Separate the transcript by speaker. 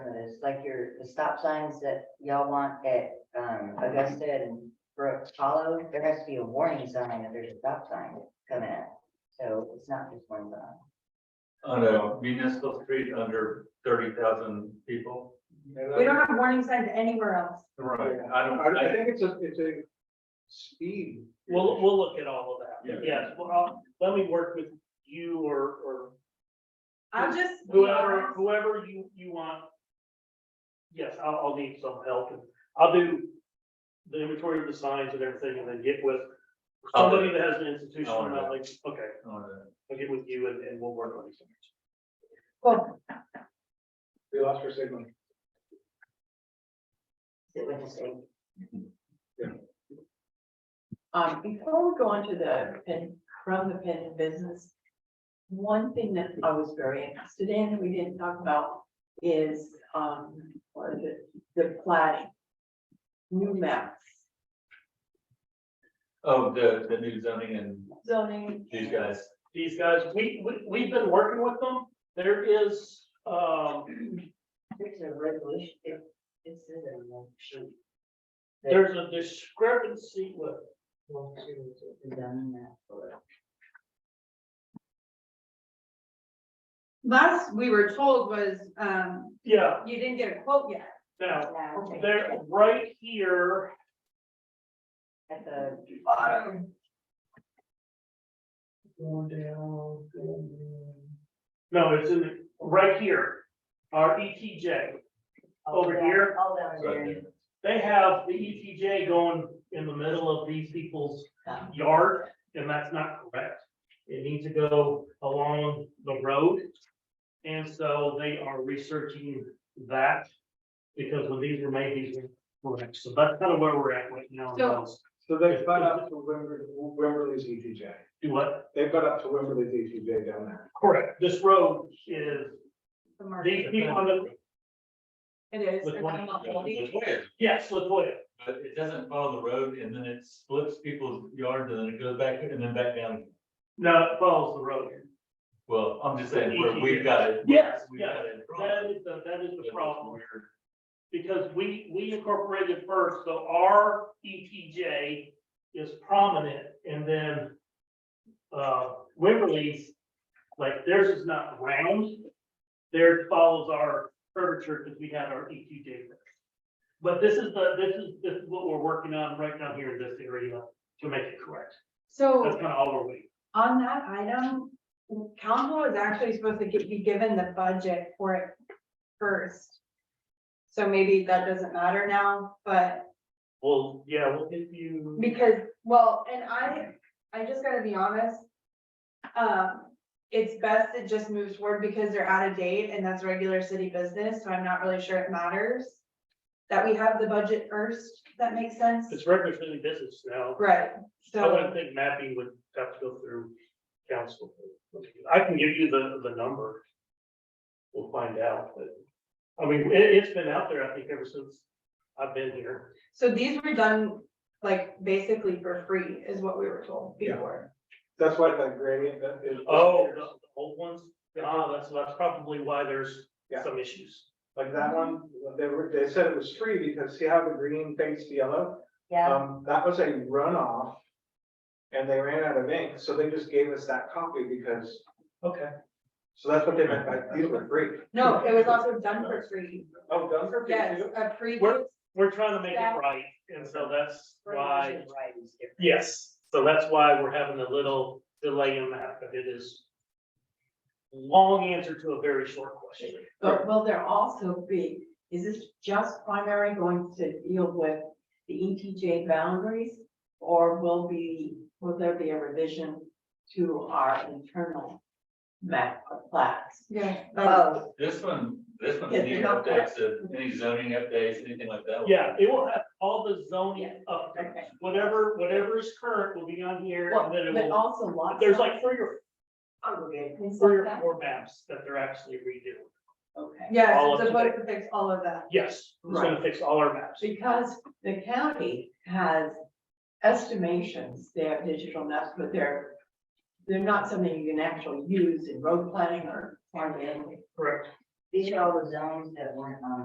Speaker 1: like your, the stop signs that y'all want at, um, Augusta and Brook Hollow, there has to be a warning sign that there's a stop sign coming at. So it's not just one sign.
Speaker 2: on a municipal street under thirty thousand people.
Speaker 3: We don't have warning signs anywhere else.
Speaker 2: Right, I don't,
Speaker 4: I I
Speaker 2: I,
Speaker 4: think it's a, it's a speed.
Speaker 5: We'll, we'll look at all of that, but
Speaker 2: Yeah.
Speaker 5: yes, well, I'll- let me work with you or, or
Speaker 3: I'm just.
Speaker 5: whoever, whoever you, you want. Yes, I'll, I'll need some help, and I'll do the inventory of the signs and everything, and then get with
Speaker 2: I'll do
Speaker 5: somebody that has an institution,
Speaker 2: I'll do
Speaker 5: about
Speaker 2: that.
Speaker 5: like, okay,
Speaker 2: on a-
Speaker 5: I'll get with you and, and we'll work on these things.
Speaker 3: Cool.
Speaker 4: We lost our signal.
Speaker 1: Is it with the state?
Speaker 6: Um, before we go on to the pen, from the pen business. One thing that I was very interested in, we didn't talk about is, um, or the, the plating. New maps,
Speaker 2: oh, the, the new zoning and
Speaker 6: zoning.
Speaker 2: these guys.
Speaker 5: These guys, we, we, we've been working with them, there is, um,
Speaker 1: There's a resolution, it, it's in the motion.
Speaker 5: there's a discrepancy with
Speaker 1: Motion to condemn that for-
Speaker 3: Last we were told was, um,
Speaker 5: Yeah,
Speaker 3: you didn't get a quote yet.
Speaker 5: now,
Speaker 1: Yeah, okay.
Speaker 5: there, right here,
Speaker 1: At the bottom.
Speaker 5: no, it's in, the right here, our ETJ.
Speaker 6: Oh,
Speaker 5: Over
Speaker 1: Yeah,
Speaker 5: here?
Speaker 1: All down
Speaker 2: Right
Speaker 1: there.
Speaker 2: there.
Speaker 5: They have the ETJ going in the middle of these people's yard, and that's not correct. It needs to go along the road. And so they are researching that, because when these were made, these were correct. So that's kind of where we're at right now.
Speaker 3: So-
Speaker 4: So they've got up to Wimberley, Wimberley's ETJ.
Speaker 5: Do what?
Speaker 4: They've got up to Wimberley's ETJ down there.
Speaker 5: Correct. This road is,
Speaker 3: The market.
Speaker 5: these people on the,
Speaker 3: It is.
Speaker 5: With
Speaker 3: it's
Speaker 5: one-
Speaker 3: a lot of money.
Speaker 2: But
Speaker 5: yes, Latoya,
Speaker 2: it doesn't follow the road and then it splits people's yards and then it goes back and then back down.
Speaker 5: no, it follows the road.
Speaker 2: Well, I'm just saying, where we've got it.
Speaker 5: Yes,
Speaker 2: We've got it.
Speaker 5: That is the, that is
Speaker 2: But
Speaker 5: the
Speaker 2: it's
Speaker 5: problem.
Speaker 2: weird.
Speaker 5: because we, we incorporated first, so our ETJ is prominent, and then uh, Wimberley's, like, theirs is not round. Theirs follows our curvature, because we had our ETJ. first. But this is the, this is, this is what we're working on right now here in this area to make it correct. That's
Speaker 3: So
Speaker 5: kind of all we're waiting.
Speaker 3: on that item, council is actually supposed to get- be given the budget for it first. So maybe that doesn't matter now, but
Speaker 5: Well, yeah, we'll give you.
Speaker 3: Because, well, and I, I just gotta be honest. Um, it's best to just move toward because they're out of date and that's regular city business, so I'm not really sure it matters. That we have the budget first, if that makes sense,
Speaker 5: It's regular city business now.
Speaker 3: right,
Speaker 5: I wouldn't
Speaker 3: so,
Speaker 5: think mapping would have to go through council. I can give you the, the number. We'll find out, but, I mean, it, it's been out there, I think, ever since I've been here.
Speaker 3: so these were done. Like basically for free is what we were told
Speaker 4: Yeah.
Speaker 3: before,
Speaker 4: That's why that gradient that is.
Speaker 5: Oh, the the old ones? Ah, that's, that's probably why there's some issues.
Speaker 4: Like that one, they were, they said it was free because see how the green fades to yellow?
Speaker 1: Yeah,
Speaker 4: Um, that was a runoff. And they ran out of ink, so they just gave us that copy because, okay. So that's what they meant by, these were free.
Speaker 3: no, it was also done for free,
Speaker 4: Oh, done for free
Speaker 3: yes,
Speaker 4: too?
Speaker 3: a pre.
Speaker 5: We're- We're trying to make
Speaker 3: That-
Speaker 5: it right, and so that's why,
Speaker 1: Resolution writing is different.
Speaker 5: yes, so that's why we're having a little delay in that, but it is long answer to a very short question.
Speaker 6: But will there also be, is this just primary going to deal with the ETJ boundaries? Or will be, will there be a revision to our internal map of plats?
Speaker 3: Yeah, that's-
Speaker 1: Oh,
Speaker 2: This one, this one,
Speaker 6: Yes,
Speaker 2: any
Speaker 6: not
Speaker 2: updates, of- any zoning updates, anything like that?
Speaker 5: Yeah, it will have all the zoning updates,
Speaker 6: Okay.
Speaker 5: whatever, whatever is current will be on here,
Speaker 6: Well,
Speaker 5: and then it
Speaker 6: but
Speaker 5: will,
Speaker 6: also lots.
Speaker 5: there's like three or,
Speaker 6: Okay.
Speaker 5: three or four maps that they're actually redoing.
Speaker 6: Okay.
Speaker 3: yes,
Speaker 5: all
Speaker 3: it's
Speaker 5: of
Speaker 3: supposed to fix all of that,
Speaker 5: Yes, it's gonna
Speaker 6: Right.
Speaker 5: fix all our maps.
Speaker 6: Because the county has estimations, they have digital maps, but they're, they're not something you can actually use in road planning or farming.
Speaker 5: Correct.
Speaker 1: these are all the zones that weren't on